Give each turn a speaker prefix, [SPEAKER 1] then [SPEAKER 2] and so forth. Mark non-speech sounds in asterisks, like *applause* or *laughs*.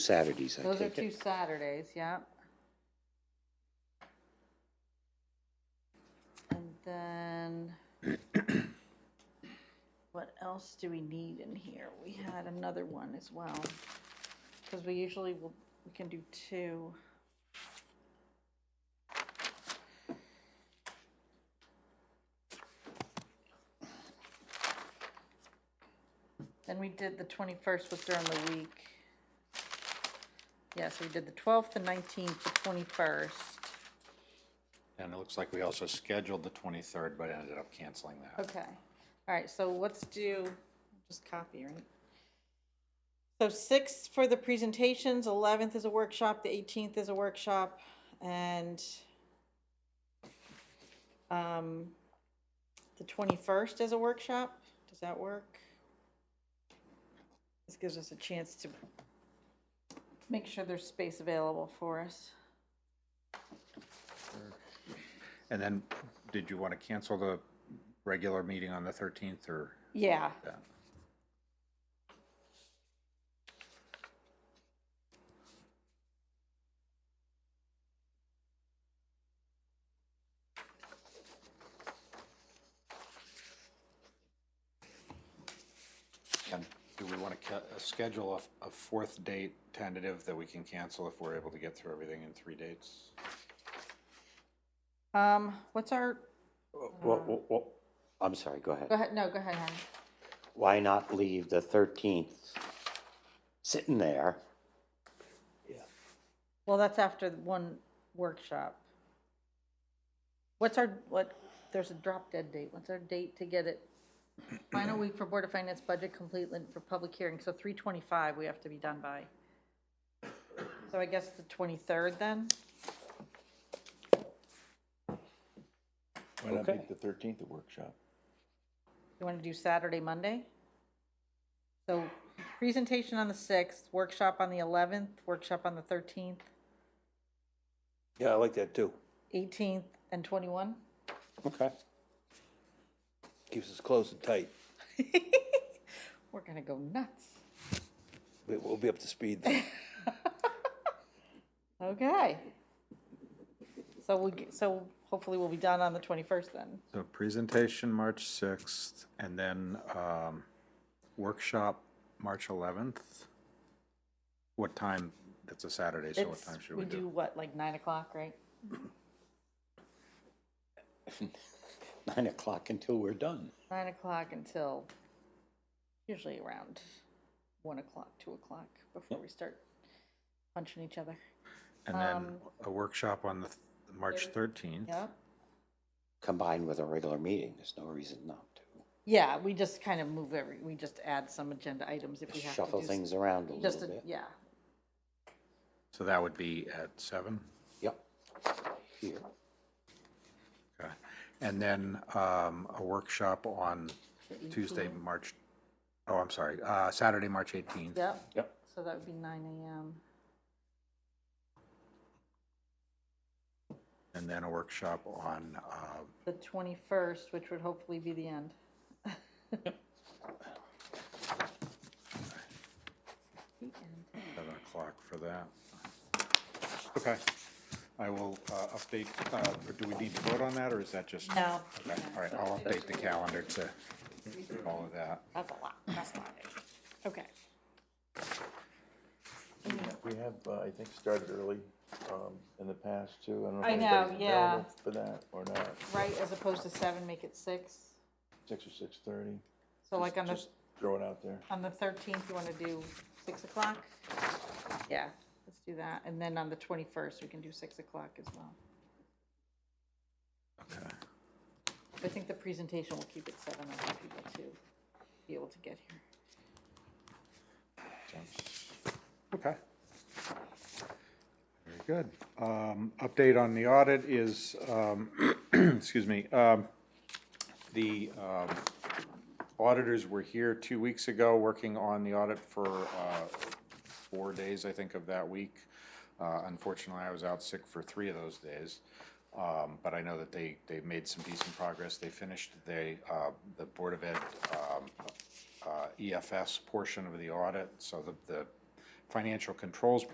[SPEAKER 1] Saturdays, I
[SPEAKER 2] Those are
[SPEAKER 1] take
[SPEAKER 2] two
[SPEAKER 1] it.
[SPEAKER 2] Saturdays, yep. And then,
[SPEAKER 1] *clears throat*
[SPEAKER 2] what else do we need in here? We had another one as well, because we usually will, we can do two. Then we did, the 21st was during the week. Yeah, so we did the 12th, the 19th, the 21st.
[SPEAKER 3] And it looks like we also scheduled the 23rd, but ended up canceling that.
[SPEAKER 2] Okay. All right, so let's do, just copy, right? So 6th for the presentations, 11th is a workshop, the 18th is a workshop, and um, the 21st is a workshop. Does that work? This gives us a chance to make sure there's space available for us.
[SPEAKER 3] And then, did you want to cancel the regular meeting on the 13th or?
[SPEAKER 2] Yeah,
[SPEAKER 3] that? And do we want to schedule a- a fourth date tentative that we can cancel if we're able to get through everything in three dates?
[SPEAKER 2] um, what's our,
[SPEAKER 1] Well, well, well, I'm sorry, go ahead.
[SPEAKER 2] go ahead, no, go ahead, Henry.
[SPEAKER 1] Why not leave the 13th sitting there? *laughs*
[SPEAKER 2] Well, that's after the one workshop. What's our, what, there's a drop dead date, what's our date to get *clears throat* it? Final week for Board of Finance budget complete and for public hearing, so three twenty-five we have to be done by. So I guess the twenty-third then?
[SPEAKER 4] Why not
[SPEAKER 1] Okay.
[SPEAKER 4] make the thirteenth a workshop?
[SPEAKER 2] You want to do Saturday, Monday? So presentation on the sixth, workshop on the eleventh, workshop on the thirteenth,
[SPEAKER 4] Yeah, I like that too.
[SPEAKER 2] eighteenth, and twenty-one?
[SPEAKER 4] Okay. Keeps us close and tight.
[SPEAKER 2] We're gonna go nuts.
[SPEAKER 4] We- We'll be up to speed then.
[SPEAKER 2] Okay. So we'll, get- so hopefully we'll be done on the 21st then.
[SPEAKER 3] So presentation, March 6th, and then um, workshop, March 11th. What time? That's a Saturday, so what
[SPEAKER 2] It's-
[SPEAKER 3] time should we
[SPEAKER 2] do
[SPEAKER 3] do?
[SPEAKER 2] what, like 9 o'clock, right?
[SPEAKER 1] Nine o'clock until we're done.
[SPEAKER 2] 9 o'clock until usually around 1 o'clock, 2 o'clock before we start punching each other.
[SPEAKER 3] And then a workshop on the, th- March 13th.
[SPEAKER 2] um, Yeah?
[SPEAKER 1] Combined with a regular meeting, there's no reason not to.
[SPEAKER 2] Yeah, we just kind of move every, we just add some agenda items if we have to do.
[SPEAKER 1] Shuffle
[SPEAKER 2] s-
[SPEAKER 1] things around a
[SPEAKER 2] Just,
[SPEAKER 1] little
[SPEAKER 2] a-
[SPEAKER 1] bit.
[SPEAKER 2] yeah.
[SPEAKER 3] So that would be at seven.
[SPEAKER 1] Yep. Here,
[SPEAKER 3] Okay. And then um, a workshop on Tuesday, March, oh, I'm sorry, uh, Saturday, March 18th.
[SPEAKER 2] Yep.
[SPEAKER 1] Yep.
[SPEAKER 2] So that would be 9 AM.
[SPEAKER 3] And then a workshop on, uh,
[SPEAKER 2] The 21st, which would hopefully be the end. The end.
[SPEAKER 3] 7 o'clock for that. Okay. I will uh, update, uh, or do we need to vote on that, or is that just?
[SPEAKER 2] No.
[SPEAKER 3] Okay, all right, I'll update the calendar to all of that.
[SPEAKER 2] That's a lot, that's a lot. Okay.
[SPEAKER 4] We have, uh, I think, started early, um, in the past too. don't
[SPEAKER 2] I
[SPEAKER 4] if
[SPEAKER 2] know,
[SPEAKER 4] anybody's
[SPEAKER 2] yeah.
[SPEAKER 4] available For that or not,
[SPEAKER 2] Right, as opposed to seven, make it six.
[SPEAKER 4] six or six thirty,
[SPEAKER 2] So like on the,
[SPEAKER 4] just throw it out there.
[SPEAKER 2] on the 13th, you want to do six o'clock? Yeah, let's do that. And then on the 21st, we can do six o'clock as well.
[SPEAKER 3] Okay.
[SPEAKER 2] I think the presentation will keep it seven, I want people to be able to get here.
[SPEAKER 3] Okay. Very good. Um, Update on the audit is, um, *clears throat* excuse me, um, the um, auditors were here two weeks ago, working on the audit for uh, four days, I think, of that week. Uh, Unfortunately, I was out sick for three of those days, Um, but I know that they, they made some decent progress. They finished, they, uh, the Board E of Ed um, uh, EFS portion of the audit, so the, the financial controls